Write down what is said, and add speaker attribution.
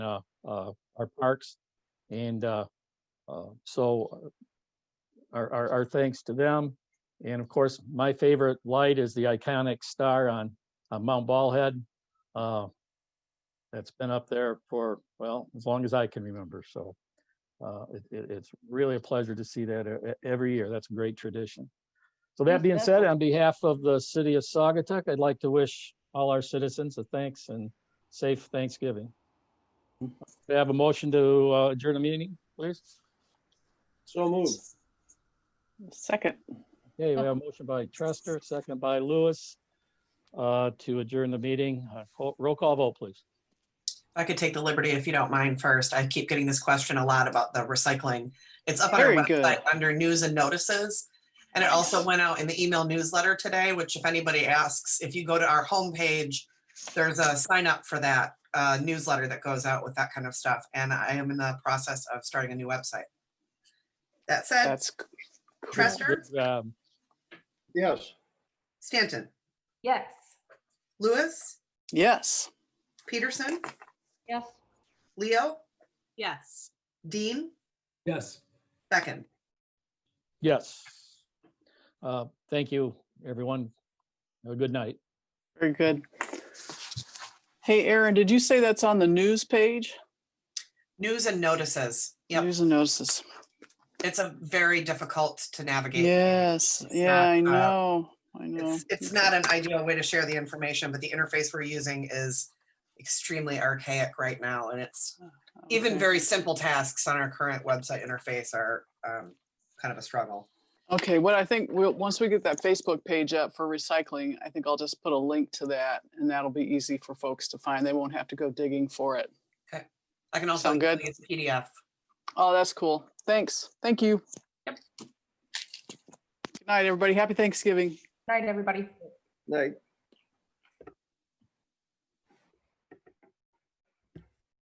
Speaker 1: uh, uh, our parks. And, uh, uh, so uh, our, our, our thanks to them. And of course, my favorite light is the iconic star on, on Mount Ballhead. Uh, that's been up there for, well, as long as I can remember. So, uh, it, it, it's really a pleasure to see that e- e- every year. That's a great tradition. So that
Speaker 2: Most
Speaker 1: being said, on behalf of the city of Saugatuck, I'd like to wish all our citizens a thanks and safe Thanksgiving. May I have a motion to uh, adjourn the meeting, please?
Speaker 3: So moved.
Speaker 2: Second.
Speaker 1: Okay, we have a motion by Trester, second by Lewis, uh, to adjourn the meeting. Uh, call- Roll call vote, please.
Speaker 4: I could take the liberty if you don't mind first. I keep getting this question a lot about the recycling. It's up on our
Speaker 2: Very good.
Speaker 4: website under news and notices. And it also went out in the email newsletter today, which if anybody asks, if you go to our homepage, there's a sign up for that uh, newsletter that goes out with that kind of stuff. And I am in the process of starting a new website. That said,
Speaker 2: That's c- cool.
Speaker 4: Trester,
Speaker 1: Good job.
Speaker 3: Yes.
Speaker 4: Stanton,
Speaker 5: Yes.
Speaker 4: Lewis,
Speaker 2: Yes.
Speaker 4: Peterson,
Speaker 5: Yes.
Speaker 4: Leo,
Speaker 5: Yes.
Speaker 4: Dean,
Speaker 6: Yes.
Speaker 4: Beckon.
Speaker 1: Yes. Uh, Thank you, everyone. Have a good night.
Speaker 2: Very good. Hey, Aaron, did you say that's on the news page?
Speaker 4: News and notices. Yep.
Speaker 2: News and notices.
Speaker 4: it's a very difficult to navigate.
Speaker 2: Yes. Yeah,
Speaker 4: not,
Speaker 2: I
Speaker 4: uh,
Speaker 2: know. I know.
Speaker 4: It's, it's not an ideal way to share the information, but the interface we're using is extremely archaic right now. And it's even
Speaker 2: Okay.
Speaker 4: very simple tasks on our current website interface are um, kind of a struggle.
Speaker 2: Okay, what I think, we'll, once we get that Facebook page up for recycling, I think I'll just put a link to that and that'll be easy for folks to find. They won't have to go digging for it.
Speaker 4: I can also
Speaker 2: Sound good?
Speaker 4: include it as PDF.
Speaker 2: Oh, that's cool. Thanks. Thank you.
Speaker 4: Yep.
Speaker 2: Good night, everybody. Happy Thanksgiving.
Speaker 5: Night, everybody.
Speaker 3: Night.